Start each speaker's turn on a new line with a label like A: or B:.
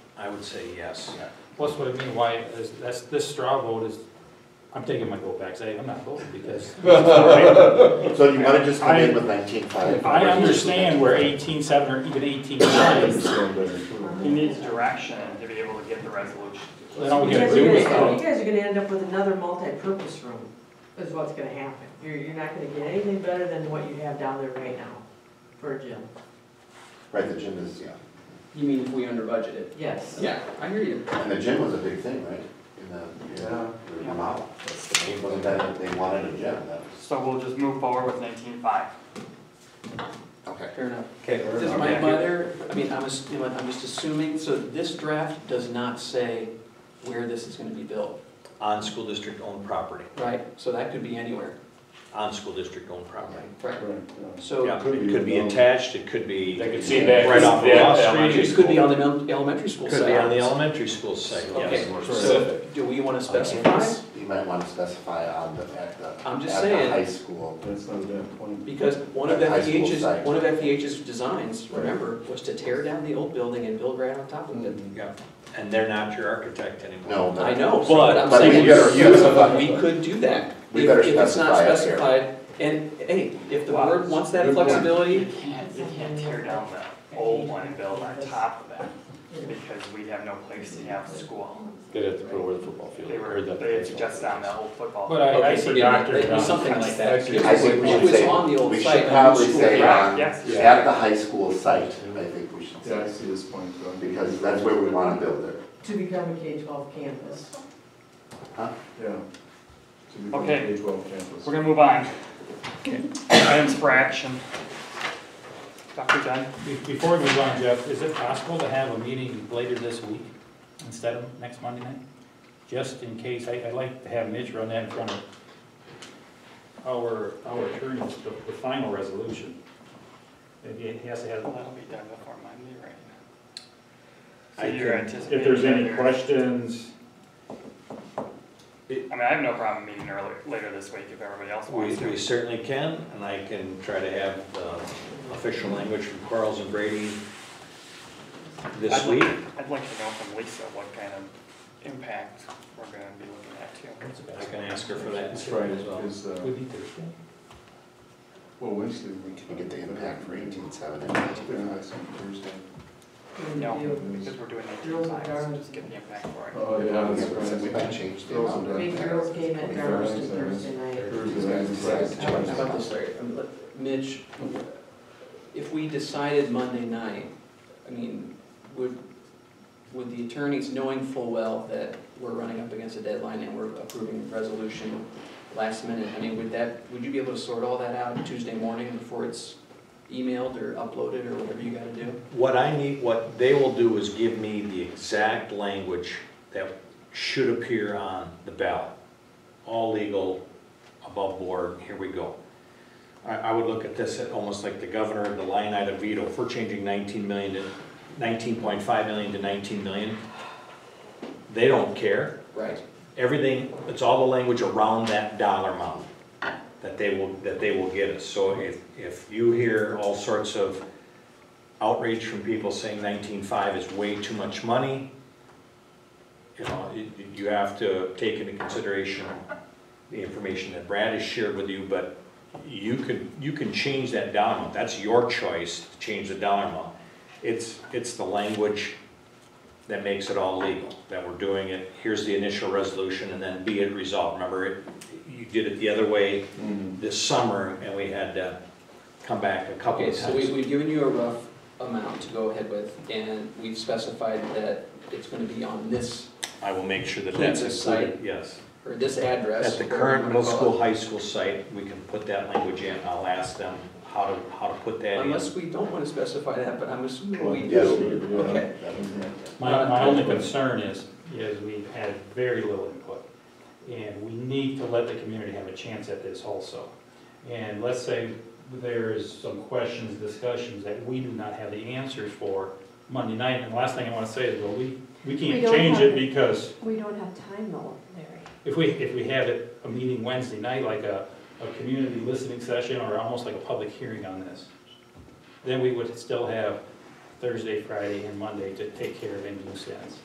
A: I would say yes.
B: Plus, what I mean, why, is, that's, this straw vote is, I'm taking my vote back, say, I'm not voting, because.
C: So you might have just come in with nineteen five.
B: I understand where eighteen seven or even eighteen nine is,
D: He needs direction to be able to get the resolution.
B: They don't
E: You
B: get
E: guys
B: to
E: are
B: do
E: gonna-
B: with
E: you
B: that.
E: guys are gonna end up with another multi-purpose room, is what's gonna happen. You're, you're not gonna get anything better than what you have down there right now for a gym.
C: Right, the gym is, yeah,
F: You mean if we under budgeted?
E: Yes.
F: Yeah, I hear you.
C: and the gym was a big thing, right? In the, in the model. Wasn't that, they wanted a gym, that was.
D: So we'll just move forward with nineteen-five.
C: Okay.
F: Fair enough.
A: Okay,
F: Does my mother, I mean, I'm, ass- you know what, I'm just assuming, so this draft does not say where this is gonna be built,
A: on school district owned property,
F: right? So that could be anywhere,
A: on school district owned property.
F: right?
A: Yeah,
F: So
A: it could be attached, it could be,
B: They
A: it
B: could see back,
A: Right off the
B: that
A: street.
B: elementary
F: it could be
B: school.
F: on the mel- elementary school side.
A: could be on the elementary school site, yes.
F: Okay, so do we wanna specify?
C: You might want to specify on the, at the.
F: I'm just
C: at the
F: saying.
C: High school.
G: That's not a bad point.
F: Because one of
C: Like high school
F: FEH's,
C: site.
F: one of FEH's designs, remember, was to tear down the old building and build right on top of it.
A: Yeah, and they're not your architect anymore.
C: No, but.
F: I know,
A: But-
F: but I'm
C: But we
F: saying,
C: better specify.
F: we could do that.
C: We
F: if-
C: better
F: If it's not
C: specify
F: specified, and, hey, if the
D: Wow.
F: board wants that
G: Good point.
D: You
F: flexibility,
D: can't, you can't tear down the old one and build on top of that, because we have no place to have a school.
B: They have to put over the football field.
D: They were,
B: or the-
D: they had suggested on that old football.
B: But I, I
F: Okay,
B: see
F: but yeah,
B: Dr.
F: maybe
B: Johnson.
F: something like that.
B: Actually,
C: I think we
F: It
C: should
F: was
C: say,
F: on the old
C: we
F: site,
C: should
F: on
C: probably
F: the
C: say,
F: school.
C: um,
D: Yes.
C: at the high school site, I think we should
G: Yeah, I
C: say,
G: see this point, John.
C: because that's where we want to build it.
E: To become a K-12 campus.
G: Yeah. To become
D: Okay.
G: a K-12 campus.
D: We're gonna move on. Items for action. Dr. Dunn?
B: Be- Before we move on, Jeff, is it possible to have a meeting later this week instead of next Monday night? Just in case, I, I'd like to have Mitch run that in front of our, our attorneys, the, the final resolution. If he he has to have,
D: That'll be done before Monday, right? So
B: I
D: you're
B: can-
D: anticipating.
B: if there's any
D: that you're-
B: questions,
D: I mean, I have no problem meeting earlier, later this week if everybody else
A: We,
D: wants to.
A: we certainly can, and I can try to have the official language from Quarles and Brady this
D: I'd like-
A: week.
D: I'd like to know from Lisa what kind of impact we're gonna be looking at too.
B: what's the
A: I
B: best?
A: can ask her for that
G: That's right,
A: as well.
G: is, uh,
B: Would be Thursday.
G: well, Wednesday. we-
C: You get the impact for eighteen seven and
G: They're
C: nineteen.
G: not on Thursday.
D: No.
E: Review.
D: Because we're doing it two
E: Girls and
D: times,
E: guys.
D: just get the impact for it.
G: Oh, yeah, that's
C: Yeah,
G: right.
C: We might change the
G: Those
C: amount
G: are
C: of.
E: Big girls game at Darvish on Thursday night.
F: About
C: Thursday.
F: this, Larry, I mean, let- Mitch, if we decided Monday night, I mean, would, would the attorneys, knowing full well that we're running up against a deadline and we're approving the resolution last minute, I mean, would that, would you be able to sort all that out Tuesday morning before it's emailed or uploaded or whatever you gotta do?
A: What I need, what they will do is give me the exact language that should appear on the ballot. All legal, above board, here we go. I, I would look at this at almost like the governor of the line item veto, if we're changing nineteen million to, nineteen point five million to nineteen million, they don't care.
F: Right.
A: everything, it's all the language around that dollar amount that they will, that they will get us. So if, if you hear all sorts of outrage from people saying nineteen-five is way too much money, you know, you, you have to take into consideration the information that Brad has shared with you, but you could, you can change that dollar amount. That's your choice to change the dollar amount. It's, it's the language that makes it all legal, that we're doing it, here's the initial resolution, and then be it resolved. Remember, it- you did it the other way
G: Mhm.
A: this summer, and we had to come back a couple
F: Okay,
A: of
F: so we,
A: times.
F: we've given you a rough amount to go ahead with, and we've specified that it's gonna be on this,
A: I will make sure that
F: Please,
A: that's
F: this
A: included, yes.
F: or this address.
A: At the
F: whatever you
A: current
F: wanna
A: middle
F: call it.
A: school, high school site, we can put that language in, I'll ask them how to, how to put that in.
F: Unless we don't want to specify that, but I'm assuming we
C: Yes,
F: do.
G: Yeah.
F: Okay.
B: My, my only concern is, is we've had very little input, and we need to let the community have a chance at this also. And let's say there is some questions, discussions that we do not have the answers for Monday night, and the last thing I wanna say is, well, we, we
H: We
B: can't
H: don't
B: change
H: have
B: it
H: it.
B: because
H: We don't have time though, Larry.
B: if we, if we had a, a meeting Wednesday night, like a, a community listening session, or almost like a public hearing on this, then we would still have Thursday, Friday, and Monday to take care of any loose ends.